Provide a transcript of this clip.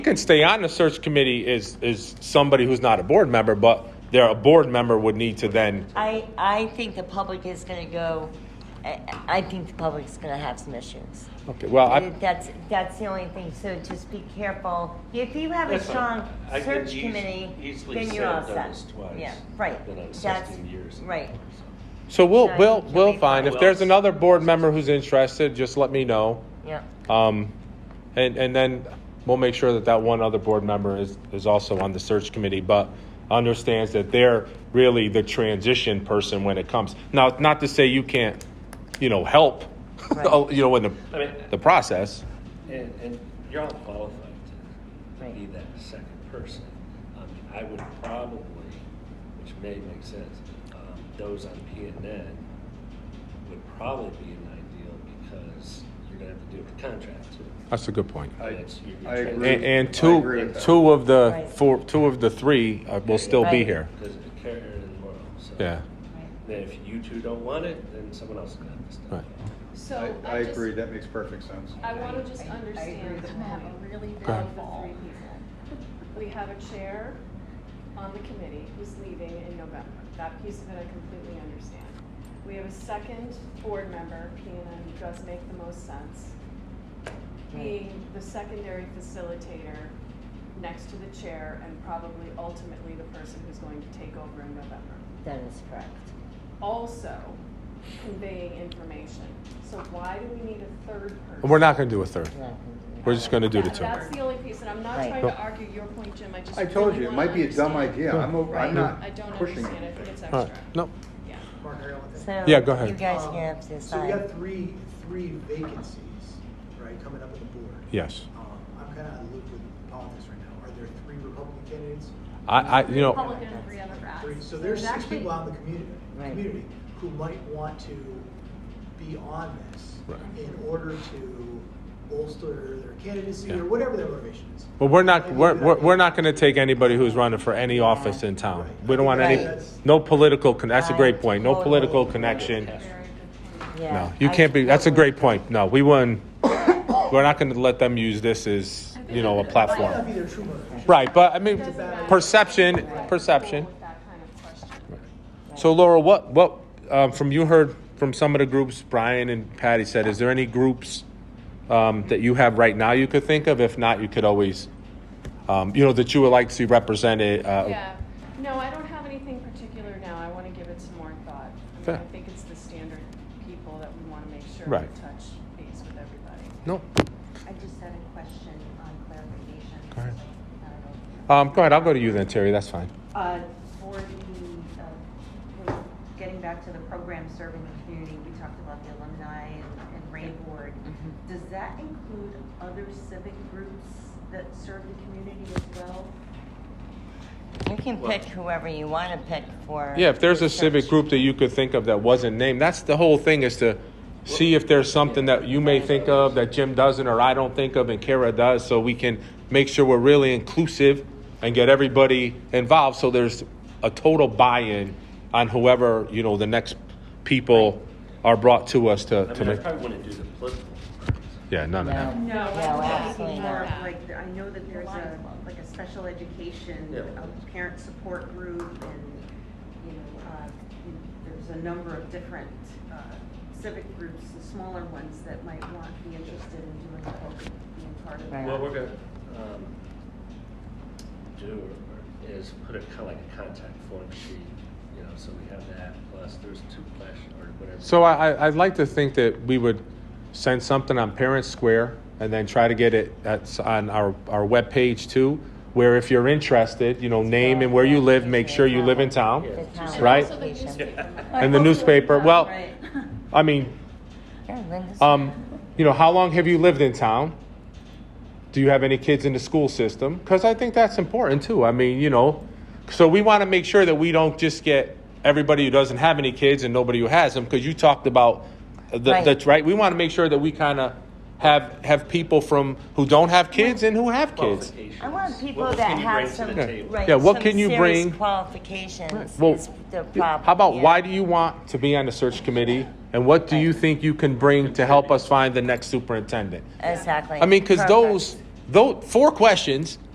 can stay on the search committee is is somebody who's not a board member, but they're a board member would need to then. I, I think the public is going to go, I, I think the public is going to have some issues. Okay, well, I, That's, that's the only thing, so just be careful. If you have a That's fine. strong I can search eas- committee, easily then say you're all I've done set. this twice, Yeah, right. been on That's- 16 years. Right, so we'll Yeah, we'll you'll we'll be find if fine. there's another board member who's interested, just let me know. yeah. Um, and and then we'll make sure that that one other board member is is also on the search committee, but understands that they're really the transition person when it comes. Now, not to say you can't, you know, help, Right. oh, you know, in the I mean- the process. And, and you're all qualified to- to be that second person. I mean, I would probably, which may make sense, um, those on P and N would probably be an ideal because you're gonna have to deal with the contract too. That's a good point. I- That's- you're- I you're agree. And, and I two, agree with that. two of the Right. four, two of the three uh, will still be Right. here. Because of the carrier in the world, so. Yeah, Then if you two don't want it, then someone else is gonna have to step Right. up. So I, I just- agree, that makes perfect sense. I want to just understand. I have a really Go bad ahead. fall. We have a chair on the committee who's leaving in November. That piece of it I completely understand. We have a second board member, PNN, who does make the most sense, being the secondary facilitator next to the chair and probably ultimately the person who's going to take over in November That is correct. also conveying information. So why do we need a third person? we're not going to do a third. Yeah. We're just going to do the That- two. That's the only piece, and I'm not Right. trying to argue your point, Jim, I just. I told you, it really might be a dumb wanna idea, I'm, o- I'm understand. I not don't pushing understand, I think it's anything. All right. extra. No. Yeah. Mark, I got one thing. So Yeah, go ahead. You guys Um, can have to So we got decide. three, three vacancies, right, coming up on the board. Yes, Um, I'm kind of out of loop with politics right now. Are there three Republican candidates? I, I, you know, Republican and three Uh, Democrats. Three, so there's six people out in the community, Right. community who might want to be on this Right. in order to bolster their candidacy Yeah. or whatever their motivation is. but we're not, we're, we're, we're not going to take anybody who's running for any office in town. We don't want any, no political. Con- that's a great point. No political connection. No, Yeah. you I can't be. That's a totally- great point. No, we wouldn't. We're not going to let them use this as you know a Might not be platform. their true motivation. Right, but I mean, Doesn't matter. perception, Right. perception. With that kind of question. So Laura, what what um, from you heard from some of the groups Brian and Patty said? Is there any groups um, that you have right now you could think of? If not, you could always, um, you know, that you would like to see represented. Uh, Yeah, no, I don't have anything particular now, I wanna give it some more thought. I Fair. mean, I think it's the standard people that we wanna make sure we Right. touch base with everybody. No. I just had a question on clarification. Go ahead. I don't know. Um, go ahead. I'll go to you then, Terry. That's fine. Uh, For the, uh, we're getting back to the program serving the community, we talked about the alumni and- and Ray Board. Mm-hmm. Does that include other civic groups that serve the community as well? You can pick whoever you want to pick for. Yeah, if there's your a civic search. group that you could think of that wasn't named, that's the whole thing is to see if there's something that you may think of that Jim doesn't or I don't think of and Kara does, so we can make sure we're really inclusive and get everybody involved. So there's a total buy-in on whoever you know the next people are brought to us to, I to mean, I make. probably wouldn't do the political. Yeah, none of that. No, I No, don't think absolutely more Or not. of that. like, I know that there's a, like a special education, Yeah. a parent support group and, you know, uh, you know, there's a number of different uh, civic groups, the smaller ones that might want, be interested in doing, the whole- being part of Right. that. What we're gonna, um, do is put a, kinda like a contact form sheet, you know, so we have that, plus there's two flash or whatever. So I, I- I'd like to think that we would send something on Parents Square and then try to get it at, on our, our webpage too, where if you're interested, you know, name and where you live, make sure you live in town. The town Right? application. And the newspaper, well, I mean, Yeah, Linda's- um, you know, how long have you lived in town? Do you have any kids in the school system? Because I think that's important too. I mean, you know, so we want to make sure that we don't just get everybody who doesn't have any kids and nobody who has them. Because you talked about the, Right. the right. We want to make sure that we kind of have have people from who don't have kids and who have kids. Qualifications. I want people What that can you have bring to some, the Yeah. table? right, Yeah, what some can you serious bring? Qualifications Well, is the problem. how about yeah. why do you want to be on the search committee, and what do you think you can bring to help us find the next superintendent? Exactly. I mean, because Perfect. those Though four questions.